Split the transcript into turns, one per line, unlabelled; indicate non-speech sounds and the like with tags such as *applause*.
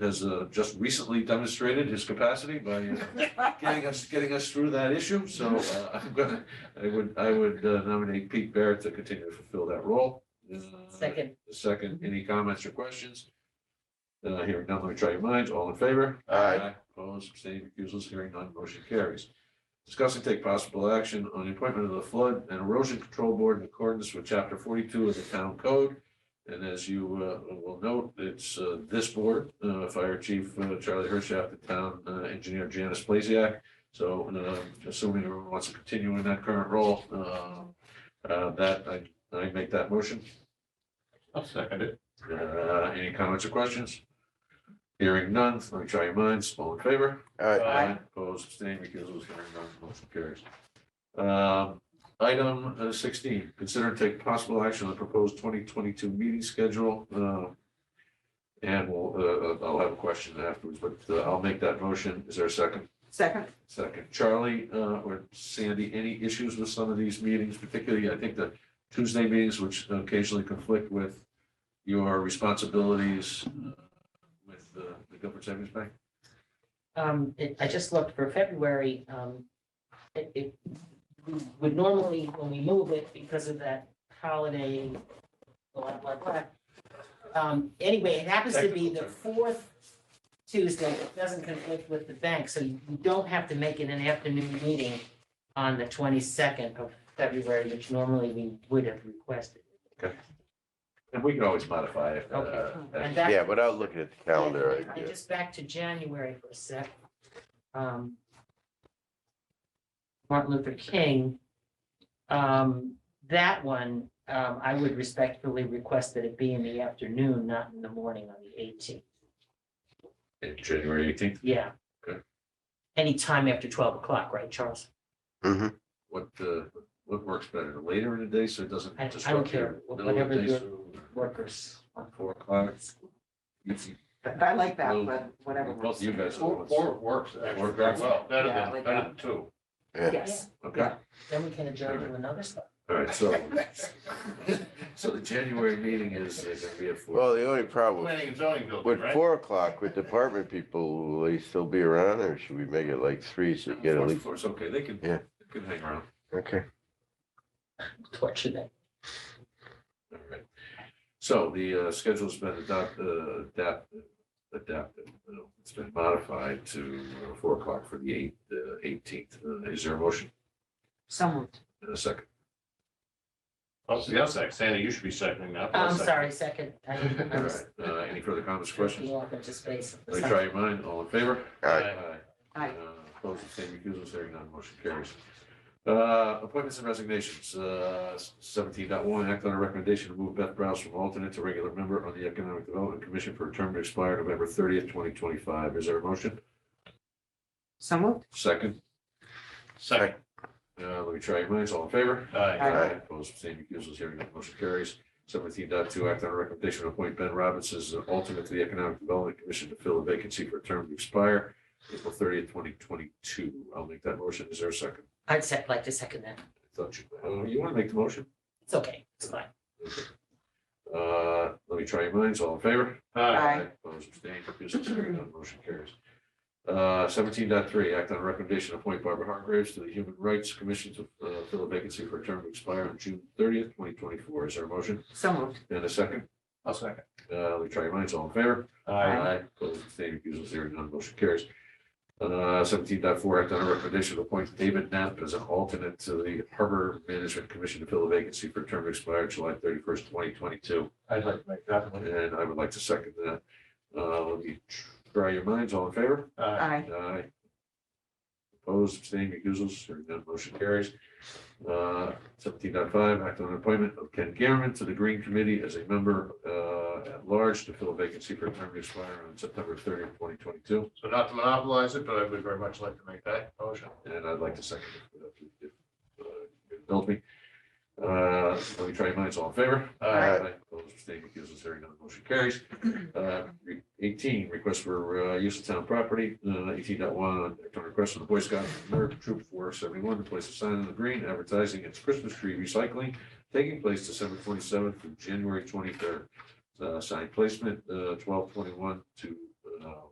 has uh, just recently demonstrated his capacity by uh, getting us, getting us through that issue. So uh, *laughs* I'm gonna, I would, I would uh, nominate Pete Barrett to continue to fulfill that role. Uh,
Second,
the Second, any comments or questions? Uh, hearing none, let me try your minds. All in favor?
Aye.
Opposed, abstaining, recusals, hearing none, motion carries. Discuss and take possible action on the appointment of the Flood and Erosion Control Board in accordance with chapter forty-two of the town code. And as you uh, will note, it's uh, this board, uh, Fire Chief uh, Charlie Hershaft, the town uh, engineer Janice Blasiak. So uh, assuming everyone wants to continue in that current role, uh, uh, that, I, I make that motion.
I'll second it.
Uh, Any comments or questions? Hearing none, let me try your minds, all in favor?
Aye.
Opposed, abstained, recusals, hearing none, motion carries. Um, Item uh, sixteen, consider and take possible action on the proposed twenty twenty-two meeting schedule. uh, And we'll, uh, uh, I'll have a question afterwards, but uh, I'll make that motion. Is there a second?
Second,
Second. Charlie uh, or Sandy, any issues with some of these meetings, particularly, I think, the Tuesday meetings, which occasionally conflict with your responsibilities uh, with uh, the Guilford Savings Bank?
um, it- I just looked for February, um, it, it would normally, when we move it because of that holiday, blah, blah, blah. Um, anyway, it happens to be the fourth Tuesday, it doesn't conflict with the bank, so you don't have to make it an afternoon meeting on the twenty-second of February, which normally we would have requested.
And we can always modify it. uh,
Okay.
as-
And that-
Yeah, without looking at the calendar, I
I
guess.
just back to January for a sec. Um, Martin Luther King. Um, that one, um, I would respectfully request that it be in the afternoon, not in the morning on the eighteenth.
in January eighteenth,
Yeah.
Okay.
Anytime after twelve o'clock, right, Charles?
Mhm.
what, uh, what works better, later in the day, so it doesn't
I- I don't
disrupt
care,
your middle of
whatever
the day,
your-
so
Workers.
four o'clock. You can-
I like that,
Well,
but whatever.
Mm. Both of you guys. are the
Four,
ones.
four works actually very well, better
Yeah, I
than,
like
better
that.
than two.
Yeah.
Yes,
Okay,
Then we can adjourn to another stuff.
all right, so, *laughs* so the January meeting is uh, gonna be at four.
Well, the only problem,
Planning and zoning building,
with
right?
four o'clock, with department people, will they still be around or should we make it like three so you get a
Four-
least?
four's okay, they can,
Yeah.
they can hang around,
Okay.
Torture them.
all right. So the, uh, schedule's been adopted, uh, adapted, adapted, uh, it's been modified to uh, four o'clock for the eight, uh, eighteenth, uh, is there a motion
someone.
in a second?
Oh,
Plus the sec, Sandy, you should be seconding that.
I'm sorry, second.
*laughs*
I didn't- I
All
was
right, uh, any further comments,
drifting
questions?
off into space.
Let me try your mind, all in favor?
Aye.
Aye.
Uh, Opposed, abstained, recusals, hearing none, motion carries. Uh, Appointments and resignations, uh, 17.1. act on a recommendation to move Beth Browse from alternate to regular member on the Economic Development Commission for a term to expire November thirtieth, twenty twenty-five. Is there a motion?
Someone?
Second,
Second,
uh, let me try your minds, all in favor?
aye,
Aye.
Opposed, abstained, recusals, hearing none, motion carries. 17.2. act on a recommendation to appoint Ben Robbins as an alternate to the Economic Development Commission to fill a vacancy for a term to expire April thirtieth, twenty twenty-two. I'll make that motion. Is there a second?
I'd sec- like to second that.
Thought you, oh, you want to make the motion?
It's okay, it's fine.
Uh, let me try your minds. All in favor?
aye,
Aye.
Opposed, abstained, recused, carried, none, motion carries. Uh, seventeen dot three, act on a recommendation to appoint Barbara Hargraves to the Human Rights Commission to, uh, fill a vacancy for a term to expire on June thirtieth, twenty twenty-four. Is there a motion?
Someone.
And a second?
I'll second.
Uh, let me try your minds. All in favor?
Aye,
Opposed, abstained, recused, carried, none, motion carries. Uh, seventeen dot four, act on a recommendation to appoint David Knapp as an alternate to the Harbor Management Commission to fill a vacancy for a term to expire July thirty-first, twenty twenty-two.
I'd like to make that one.
And I would like to second that. Uh, let me try your minds, all in favor?
Aye,
Aye.
Aye. Opposed, abstaining, recusals, hearing none, motion carries. Uh, seventeen point five. act on appointment of Ken Garman to the Green Committee as a member, uh, at large to fill a vacancy for a term to expire on September thirtieth, twenty twenty-two.
so not to monopolize it, but I would very much like to make that motion.
And I'd like to second it. if- if, uh, you Indulge me. Uh, let me try your minds, all in favor?
Aye,
Aye. Opposed, abstained, recused, hearing none, motion carries. Uh, re- Eighteen, request for uh, use of town property, uh, eighteen dot one, request from the Boy Scouts of America Troop four seventy-one to place a sign on the green advertising its Christmas tree recycling taking place December Uh, twenty-seventh through January twenty-third. Sign placement, twelve uh, twenty-one to uh, an hour.